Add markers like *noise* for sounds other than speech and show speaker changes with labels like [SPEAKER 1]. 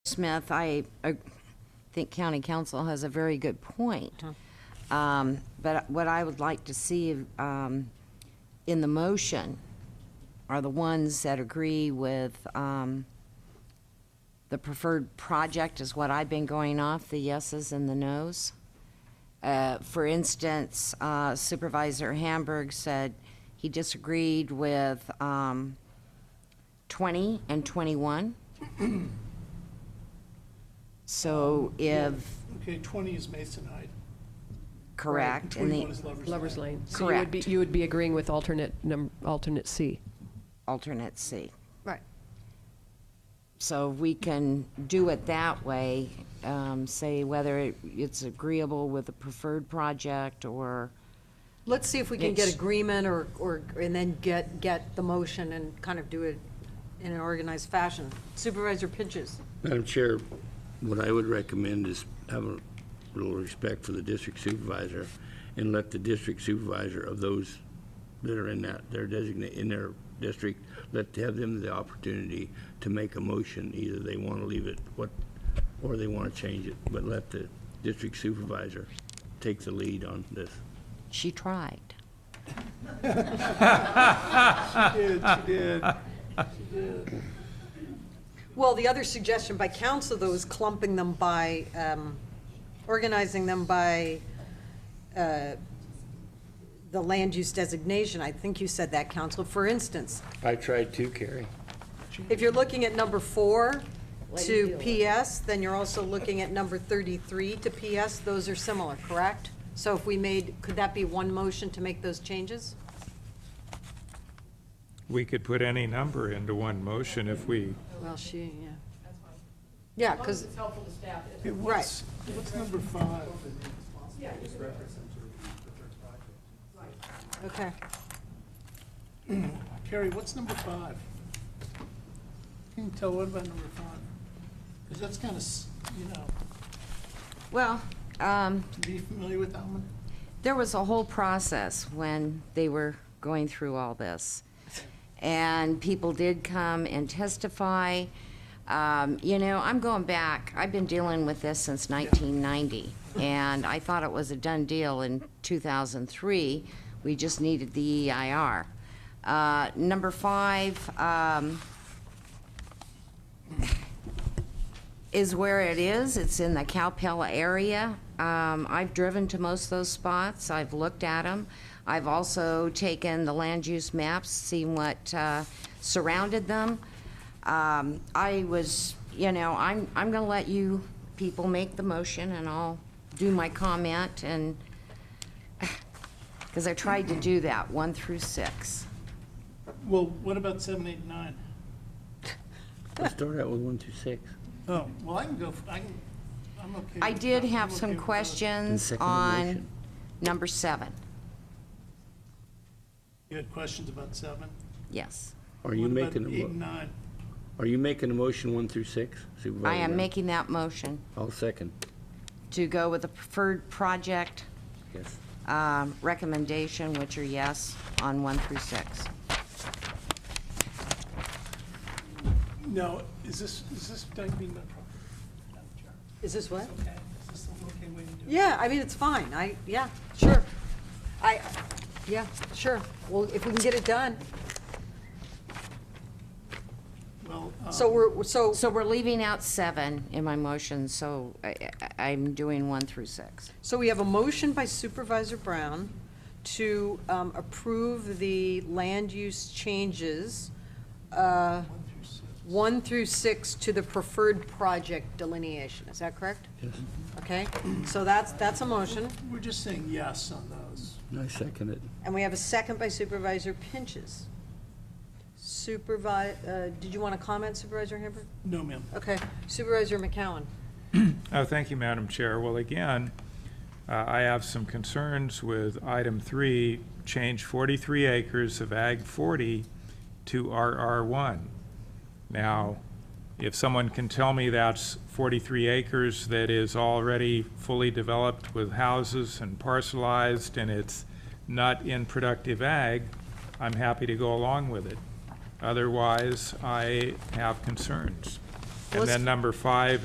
[SPEAKER 1] Smith, I uh, think county council has a very good point. Um, But what I would like to see um, in the motion are the ones that agree with um, the preferred project is what I've been going off, the yeses and the nos. Uh, For instance, uh, Supervisor Hamburg said he disagreed with um, 20 and 21. So if,
[SPEAKER 2] Okay, 20 is Mason Height.
[SPEAKER 1] correct, and
[SPEAKER 2] 21
[SPEAKER 1] the
[SPEAKER 2] is Lover's Lane.
[SPEAKER 3] Lover's Lane. So you would be-
[SPEAKER 1] Correct.
[SPEAKER 3] You would be agreeing with alternate, num- alternate C.
[SPEAKER 1] alternate C.
[SPEAKER 4] Right.
[SPEAKER 1] So if we can do it that way, um, say whether it- it's agreeable with the preferred project or,
[SPEAKER 4] Let's see if we can get
[SPEAKER 1] Yes.
[SPEAKER 4] agreement or, or, and then get, get the motion and kind of do it in an organized fashion. Supervisor Pinches,
[SPEAKER 5] Madam Chair, what I would recommend is have a little respect for the district supervisor and let the district supervisor of those that are in that, their designate, in their district, let, have them the opportunity to make a motion, either they want to leave it, what, or they want to change it, but let the district supervisor take the lead on this.
[SPEAKER 1] she tried.
[SPEAKER 2] Did, she did.
[SPEAKER 4] well, the other suggestion by council though is clumping them by, um, organizing them by, uh, the land use designation. I think you said that, council. For instance,
[SPEAKER 5] I tried to, Carrie.
[SPEAKER 4] If you're looking at number four to PS, then you're also looking at number 33 to PS. Those are similar, correct? So if we made, could that be one motion to make those changes?
[SPEAKER 6] We could put any number into one motion if we,
[SPEAKER 4] Well, she, yeah. Yeah, because,
[SPEAKER 2] It
[SPEAKER 4] Right.
[SPEAKER 2] was, what's number five?
[SPEAKER 4] okay.
[SPEAKER 2] Carrie, what's number five? Can you tell what about number five? Because that's kind of, you know,
[SPEAKER 1] Well, um,
[SPEAKER 2] be familiar with that one?
[SPEAKER 1] there was a whole process when they were going through all this. And people did come and testify. Um, you know, I'm going back, I've been dealing with this since 1990, and I thought it was a done deal in 2003. We just needed the EIR. Uh, number five, um, is where it is. It's in the Cowpella area. Um, I've driven to most of those spots. I've looked at them. I've also taken the land use maps, seen what uh, surrounded them. Um, I was, you know, I'm, I'm going to let you people make the motion and I'll do my comment and, *sighs* because I tried to do that, one through six.
[SPEAKER 2] Well, what about seven, eight, and nine?
[SPEAKER 5] Let's start out with one through six.
[SPEAKER 2] Oh, well, I can go, f- I can, I'm okay.
[SPEAKER 1] I
[SPEAKER 2] with
[SPEAKER 1] did
[SPEAKER 2] that.
[SPEAKER 1] have
[SPEAKER 2] I'm
[SPEAKER 1] some
[SPEAKER 2] okay with that.
[SPEAKER 1] questions
[SPEAKER 5] second the
[SPEAKER 1] on
[SPEAKER 5] motion.
[SPEAKER 1] number seven.
[SPEAKER 2] You had questions about seven?
[SPEAKER 1] Yes.
[SPEAKER 5] Are you
[SPEAKER 2] What about
[SPEAKER 5] making,
[SPEAKER 2] Eight
[SPEAKER 5] a
[SPEAKER 2] and
[SPEAKER 5] mo-
[SPEAKER 2] nine.
[SPEAKER 5] are you making a motion one through six,
[SPEAKER 1] I
[SPEAKER 5] Supervisor?
[SPEAKER 1] am
[SPEAKER 5] Brown?
[SPEAKER 1] making that motion
[SPEAKER 5] I'll second,
[SPEAKER 1] to go with the preferred project
[SPEAKER 5] yes.
[SPEAKER 1] um, recommendation, which are yes on one through six.
[SPEAKER 2] No, is this, is this Doug being my problem? Madam Chair?
[SPEAKER 4] Is this what?
[SPEAKER 2] Okay, is this an okay way to do it?
[SPEAKER 4] Yeah, I mean, it's fine. I, yeah, sure. I, yeah, sure. Well, if we can get it done.
[SPEAKER 2] Well, um,
[SPEAKER 4] So we're, so,
[SPEAKER 1] So we're leaving out seven in my motion, so I- I- I'm doing one through six.
[SPEAKER 4] so we have a motion by Supervisor Brown to um, approve the land use changes
[SPEAKER 2] one
[SPEAKER 4] uh,
[SPEAKER 2] through six.
[SPEAKER 4] one through six to the preferred project delineation, is that correct? Yes. Okay, so that's, that's a motion,
[SPEAKER 2] We're just saying yes on those.
[SPEAKER 5] I second it.
[SPEAKER 4] and we have a second by Supervisor Pinches. Supervi, uh, did you want to comment Supervisor Hamburg?
[SPEAKER 2] No, ma'am.
[SPEAKER 4] Okay, Supervisor McCowan,
[SPEAKER 6] oh, thank you, Madam Chair. Well, again, uh, I have some concerns with item three, change 43 acres of Ag 40 to RR1. Now, if someone can tell me that's 43 acres that is already fully developed with houses and parcelized and it's not in productive ag, I'm happy to go along with it. Otherwise, I have concerns. And then number five